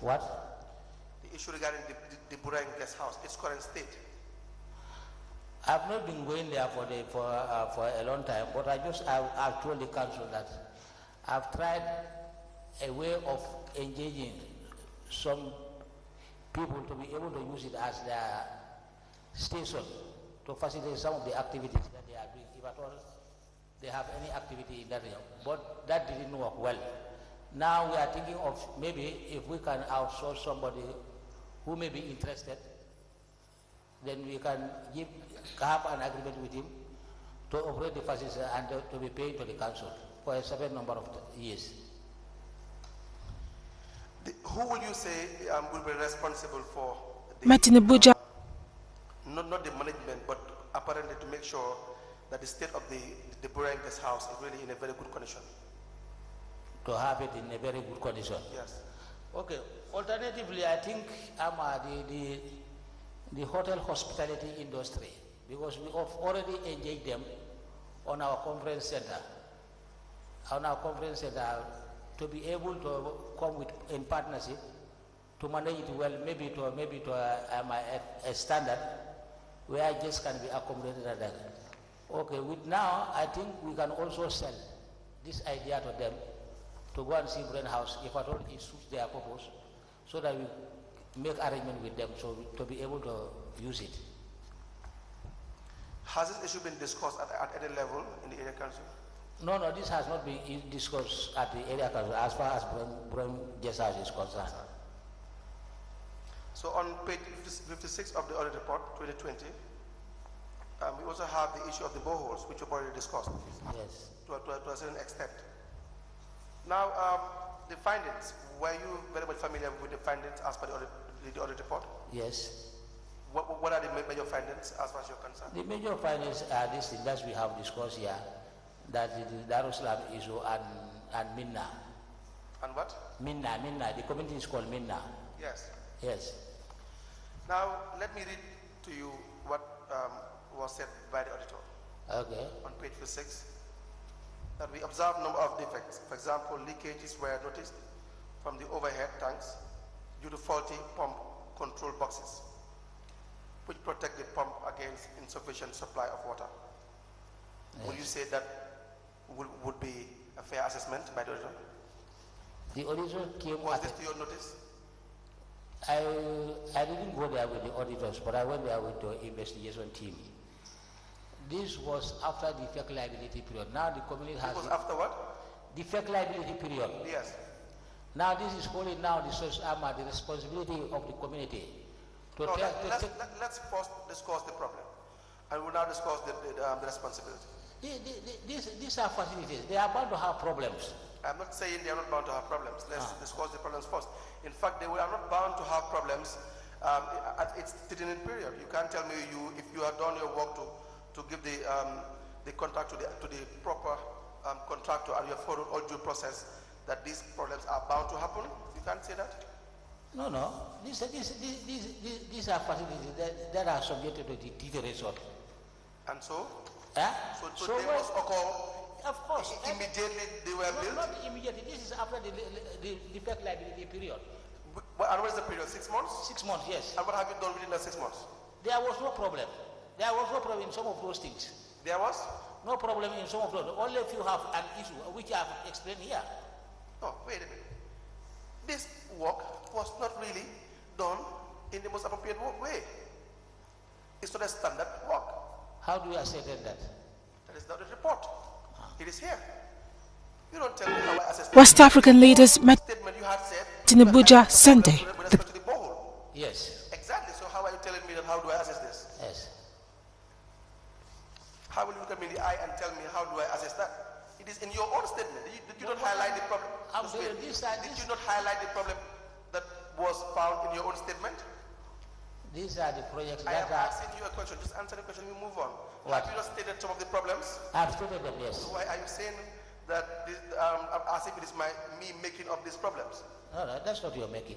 What? The issue regarding the, the, the Burang guest house, it's current state. I've not been going there for the, for, uh, for a long time, but I just, I, I've told the council that I've tried a way of engaging some people to be able to use it as their station to facilitate some of the activities that they are doing, if at all they have any activity in that area. But that didn't work well. Now we are thinking of maybe if we can outsource somebody who may be interested then we can give, have an agreement with him to operate the facility and to- to be paid to the council for a certain number of years. The, who will you say um, will be responsible for? The, Martin Buja, Not, not the management, but apparently to make sure that the state of the, the Burang guest house is really in a very good condition. to have it in a very good condition. Yes. Okay, alternatively, I think um, uh, the, the, the hotel hospitality industry, because we have already engaged them on our conference center, on our conference center, to be able to come with, in partnership, to manage it well, maybe to, maybe to a, um, a, a standard where guests can be accommodated at that. Okay, with now, I think we can also sell this idea to them to go and see Brain House if at all it suits their purpose, so that we make arrangement with them so we- to be able to use it. Has this issue been discussed at, at any level in the area council? No, no, this has not been i- discussed at the area council as far as Brain, Brain Guest House is concerned. So on page 50 56 of the audit report 2020, um, we also have the issue of the boreholes, which we've already discussed Yes. to a, to a, to a certain extent. Now, um, the findings, were you very much familiar with the findings as per the audit, the audit report? Yes. What, what are the ma- major findings as far as you're concerned? The major findings are these things that we have discussed here, that the the Darussalam issue and, and Minna. And what? Minna, Minna, the community is called Minna. Yes. Yes. Now, let me read to you what um, was said by the auditor. Okay. on page 56 that we observe number of defects. For example, leakages were noticed from the overhead tanks due to faulty pump control boxes, which protect the pump against insufficient supply of water. Would you say that would, would be a fair assessment by the auditor? The original came Was at this to your notice? I, I didn't go there with the auditors, but I went there with the investigation team. This was after the fake liability period. Now the community It has was the, afterward? the fake liability period. Yes. Now this is wholly now the social armor, the responsibility of the community to, No, take- let, to let's, take- let, let's first discuss the problem. And we'll now discuss the, the, um, the responsibility. The- the- the- these, these are facilities. They are bound to have problems. I'm not saying they are not bound to have problems. Let's Ah. discuss the problems first. In fact, they were- are not bound to have problems um, at its determined period. You can't tell me you if you have done your work to, to give the um, the contract to the to the proper um, contractor and you have followed all due process that these problems are bound to happen. You can't say that. No, no. These, these, these, these, these- these are facilities that, that are subjected to deterioration. And so, Eh? so, so, So they when- must occur of course. every- immediately. They were No, built. Not immediately, this is after the, the, the debt liability period. Wh- And what is the period? Six months. Six months, yes. And what have you done within the six months? There was no problem. There was no problem in some of those things. There was. No problem in some of those. Only if you have an issue, which I have explained here. No, Oh, wait a minute. This work was not really done in the most appropriate wo- way. It's not a standard work. How do you ascertain that? That is not a report. It is here. You don't tell me how I assess West African leaders met statement you had said. Tinubu you had Jah some Sunday. problems With respect to the borehole. Yes, Exactly. So how are you telling me that? How do I assess this? yes. How will you look at me in the eye and tell me how do I assess that? It is in your own statement. Did you, did you not highlight the problem? I'm Just wait. doing this and Did this. you not highlight the problem that was found in your own statement? These are the projects I am that are, asking you a question. Just answer the question. We move on. What? Have you not stated some of the problems? I've stated them, yes. Why are you saying that this, um, as if it is my me making up these problems? No, no, that's not your making.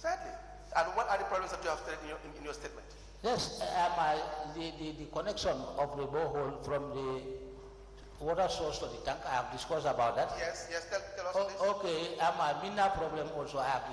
Sadly. And what are the problems that you have stated in your, in, in your statement? Yes, um, I, the, the, the connection of the borehole from the water source to the tank, I have discussed about that. Yes. Yes. Tell, tell us O- this. Okay, um, a minor problem also I have discussed